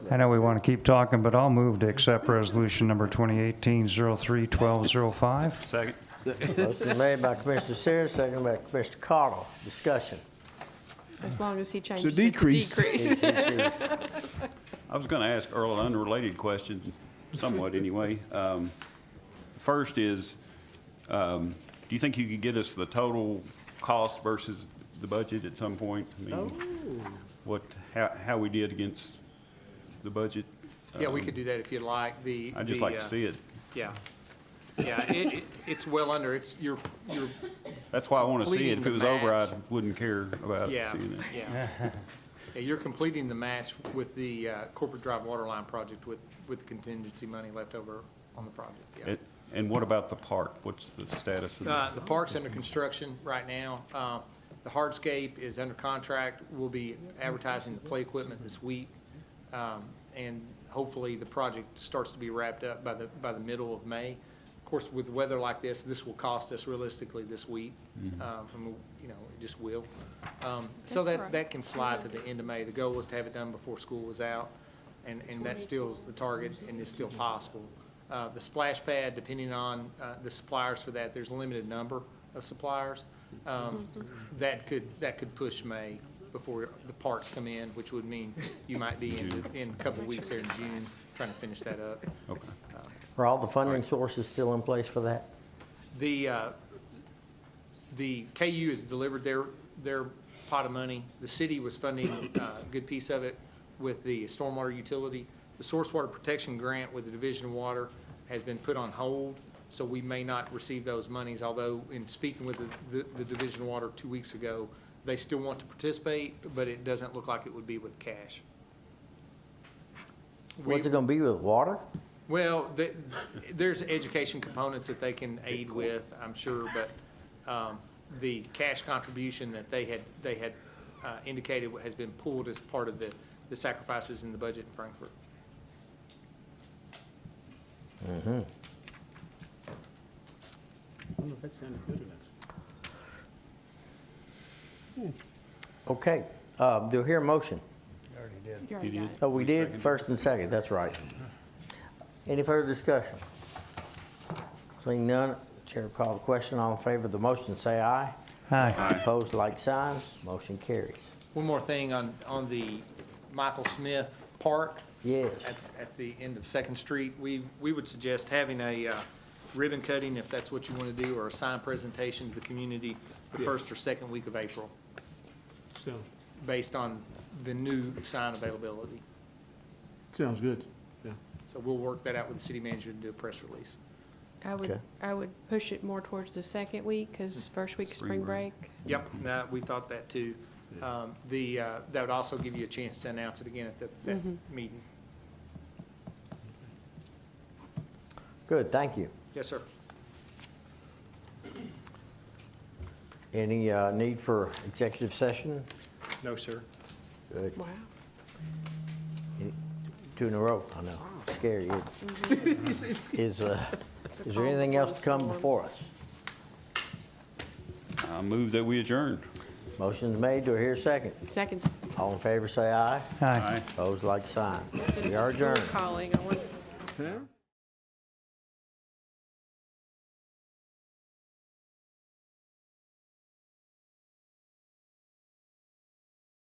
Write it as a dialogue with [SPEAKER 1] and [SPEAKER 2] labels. [SPEAKER 1] I know we want to keep talking, but I'll move to accept resolution number 2018-03-1205.
[SPEAKER 2] Second.
[SPEAKER 3] Motion made by Commissioner Sears, seconded by Commissioner Cottle. Discussion.
[SPEAKER 4] As long as he changes it to
[SPEAKER 5] decrease.
[SPEAKER 4] decrease.
[SPEAKER 2] I was going to ask Earl an unrelated question, somewhat anyway. Um, First is, um, do you think you could get us the total cost versus the budget at some point? I mean,
[SPEAKER 6] Oh.
[SPEAKER 2] What, how, how we did against the budget?
[SPEAKER 6] Yeah, we could do that if you'd like, the.
[SPEAKER 2] Um, I'd just
[SPEAKER 6] the,
[SPEAKER 2] like
[SPEAKER 6] uh,
[SPEAKER 2] to see it.
[SPEAKER 6] Yeah, yeah, it, it- it's well under, it's, you're, you're,
[SPEAKER 2] That's why I want to see it.
[SPEAKER 6] completing
[SPEAKER 2] If
[SPEAKER 6] the
[SPEAKER 2] it was over, I
[SPEAKER 6] match.
[SPEAKER 2] wouldn't care about
[SPEAKER 6] yeah,
[SPEAKER 2] seeing it.
[SPEAKER 6] yeah. Yeah, You're completing the match with the uh, Corporate Drive Water Line project with, with contingency money left over on the project, yeah.
[SPEAKER 2] It- And what about the park? What's the status of
[SPEAKER 6] Uh,
[SPEAKER 2] that?
[SPEAKER 6] The park's under construction right now. Uh, The hardscape is under contract. We'll be advertising the play equipment this week. Um, And hopefully, the project starts to be wrapped up by the, by the middle of May. Of course, with weather like this, this will cost us realistically this week. Um, and we'll- You know, it just will. Um, So
[SPEAKER 4] That's
[SPEAKER 6] that,
[SPEAKER 4] right.
[SPEAKER 6] that can slide to the end of May. The goal was to have it done before school was out, and, and that still is the target and is still possible. Uh, The splash pad, depending on uh, the suppliers for that, there's a limited number of suppliers. Um, That could, that could push May before the parks come in, which would mean you might be in, in a couple of weeks there in June, trying to finish that up.
[SPEAKER 2] Okay.
[SPEAKER 3] Are all the funding sources still in place for that?
[SPEAKER 6] The, uh, the KU has delivered their, their pot of money. The city was funding uh, a good piece of it with the stormwater utility. The source water protection grant with the Division of Water has been put on hold, so we may not receive those monies, although in speaking with the, the- the Division of Water two weeks ago, they still want to participate, but it doesn't look like it would be with cash. We-
[SPEAKER 3] What's it gonna be with water?
[SPEAKER 6] well, the- there's education components that they can aid with, I'm sure, but um, the cash contribution that they had, they had uh, indicated has been pulled as part of the the sacrifices in the budget in Frankfurt.
[SPEAKER 5] I don't know if that sounded good enough.
[SPEAKER 3] Okay, uh, do I hear a motion?
[SPEAKER 4] You already got it.
[SPEAKER 3] Oh, we did, first and second, that's right. Any further discussion? Seeing none, Chair will call the question, all in favor of the motion, say aye.
[SPEAKER 1] Aye.
[SPEAKER 3] Opposed, like sign, motion carries.
[SPEAKER 6] One more thing on, on the Michael Smith Park.
[SPEAKER 3] Yes.
[SPEAKER 6] At, at the end of Second Street, we, we would suggest having a uh, ribbon cutting, if that's what you want to do, or a sign presentation to the community the first or second week of April,
[SPEAKER 5] So,
[SPEAKER 6] based on the new sign availability.
[SPEAKER 5] sounds good. Yeah.
[SPEAKER 6] So we'll work that out with the city manager and do a press release.
[SPEAKER 4] I would,
[SPEAKER 3] Okay.
[SPEAKER 4] I would push it more towards the second week, because first week, spring break.
[SPEAKER 6] Yep, no, we thought that too. Um, The, uh, that would also give you a chance to announce it again at the, that meeting.
[SPEAKER 3] Good, thank you.
[SPEAKER 6] Yes, sir.
[SPEAKER 3] Any uh, need for executive session?
[SPEAKER 6] No, sir.
[SPEAKER 3] Good.
[SPEAKER 4] Wow.
[SPEAKER 3] Two in a row, I know,
[SPEAKER 4] Oh.
[SPEAKER 3] scary. Is, uh, is there anything else to come before us?
[SPEAKER 2] I move that we adjourn.
[SPEAKER 3] Motion's made, do I hear a second?
[SPEAKER 4] Second,
[SPEAKER 3] All in favor, say aye.
[SPEAKER 1] Aye.
[SPEAKER 2] Aye.
[SPEAKER 3] Opposed, like sign.
[SPEAKER 4] this is
[SPEAKER 3] We are
[SPEAKER 4] the school
[SPEAKER 3] adjourned.
[SPEAKER 4] calling. I wonder-
[SPEAKER 5] Huh?